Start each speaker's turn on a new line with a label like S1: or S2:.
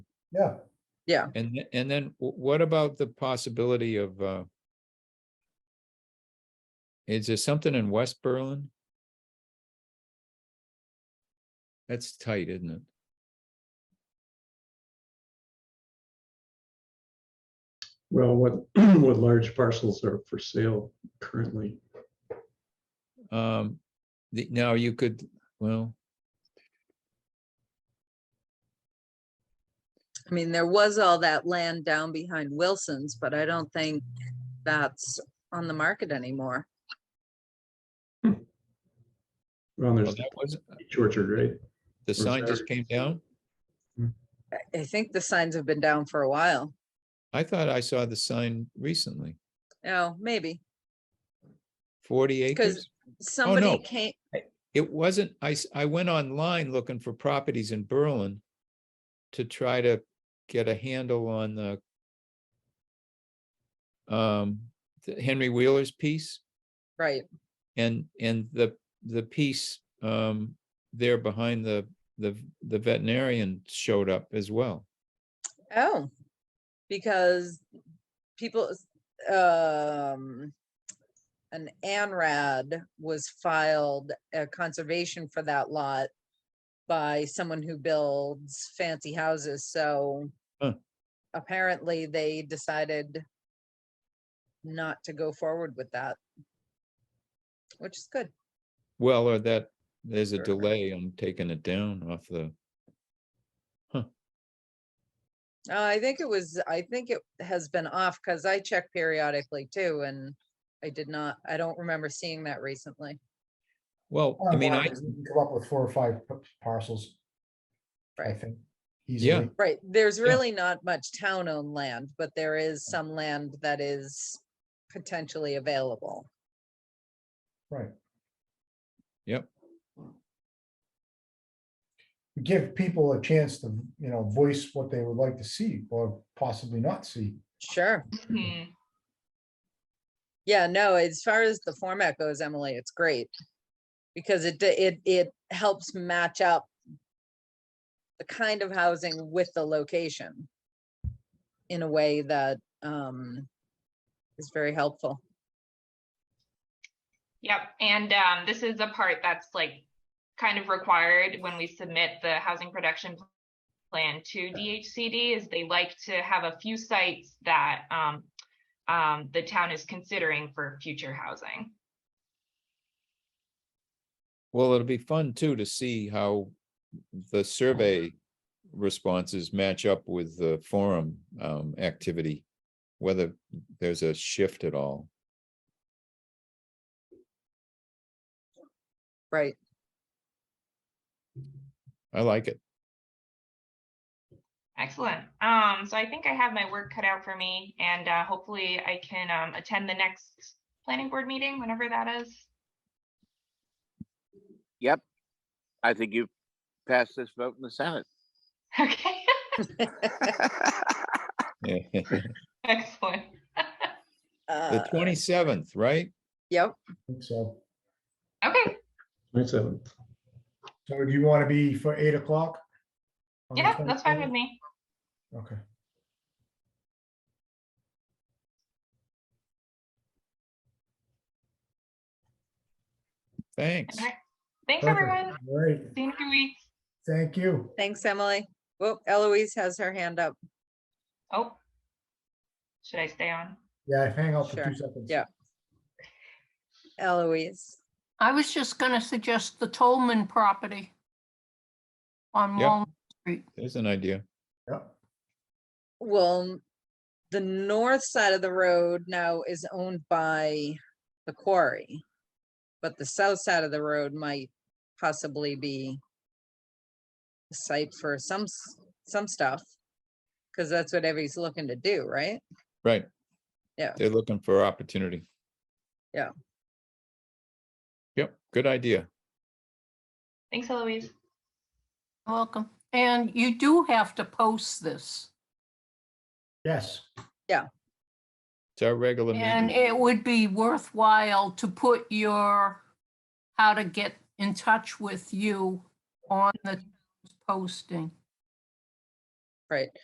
S1: Yeah.
S2: Yeah.
S3: And, th- and then wh- what about the possibility of, uh, is there something in West Berlin? That's tight, isn't it?
S4: Well, what, what large parcels are for sale currently?
S3: Um, the, now you could, well,
S2: I mean, there was all that land down behind Wilson's, but I don't think that's on the market anymore.
S4: Well,
S3: well,
S4: there's
S3: oh, that was,
S4: Peach Orchard, right?
S3: the sign just came down.
S2: I- I think the signs have been down for a while.
S3: I thought I saw the sign recently,
S2: Oh, maybe.
S3: forty
S2: 'Cause-
S3: acres.
S2: Somebody
S3: no.
S2: came,
S3: It wasn't, I, s- I went online looking for properties in Berlin to try to get a handle on the um, the Henry Wheeler's piece
S2: right,
S3: and, and the, the piece um, there behind the, the, the veterinarian showed up as well.
S2: oh, because people, um, an ANRAD was filed, a conservation for that lot by someone who builds fancy houses, so
S3: Huh.
S2: apparently they decided not to go forward with that, which is good.
S3: Well, or that, there's a
S2: Sure.
S3: delay on taking it down off the,
S2: Uh, I think it was, I think it has been off because I check periodically too, and I did not, I don't remember seeing that recently.
S3: well, I mean, I,
S1: Online, you can Come up with four or five p- parcels. I
S2: Right.
S1: think.
S3: Yeah.
S1: easily.
S2: Right, there's really not much town-owned land, but there is some land that is potentially available.
S1: Right.
S3: Yep.
S1: Give people a chance to, you know, voice what they would like to see or possibly not see.
S2: Sure.
S5: Mm-hmm.
S2: Yeah, no, as far as the format goes, Emily, it's great. Because it, d- it, it helps match up the kind of housing with the location in a way that, um, is very helpful.
S5: Yep, and um, this is the part that's like kind of required when we submit the housing production pl- plan to DHCD is they like to have a few sites that um, um, the town is considering for future housing.
S3: Well, it'll be fun too to see how the survey responses match up with the forum um activity. Whether there's a shift at all.
S2: Right,
S3: I like it.
S5: Excellent. Um, so I think I have my work cut out for me, and uh, hopefully I can um, attend the next planning board meeting whenever that is.
S6: Yep. I think you passed this vote in the Senate.
S5: Okay,
S3: The
S5: excellent.
S2: uh,
S3: twenty-seventh, right?
S2: yep,
S1: I think So,
S5: Okay,
S4: Twenty-seventh.
S1: so do you want to be for eight o'clock? on the
S5: yeah, that's fine with
S1: 27th?
S5: me.
S1: Okay.
S3: Thanks.
S5: All right. Thanks,
S1: perfect.
S5: everyone.
S1: All right,
S5: See you in a few weeks.
S1: thank you.
S2: thanks, Emily. Well, Eloise has her hand up.
S5: Oh. Should I stay on?
S1: Yeah, hang out for
S2: Sure.
S1: two seconds.
S2: Yeah. Eloise,
S7: I was just gonna suggest the Tolman property on
S3: Yeah.
S7: Walnut.
S3: There's an idea.
S1: Yeah.
S2: well, the north side of the road now is owned by the quarry. But the south side of the road might possibly be a site for some, s- some stuff. Cause that's what everybody's looking to do, right?
S3: Right.
S2: Yeah.
S3: They're looking for opportunity.
S2: Yeah.
S3: Yep, good idea.
S5: Thanks, Eloise.
S7: Welcome. And you do have to post this.
S1: Yes,
S3: It's our regular
S7: And
S3: meeting.
S7: it would be worthwhile to put your, how to get in touch with you on the posting.
S2: Right.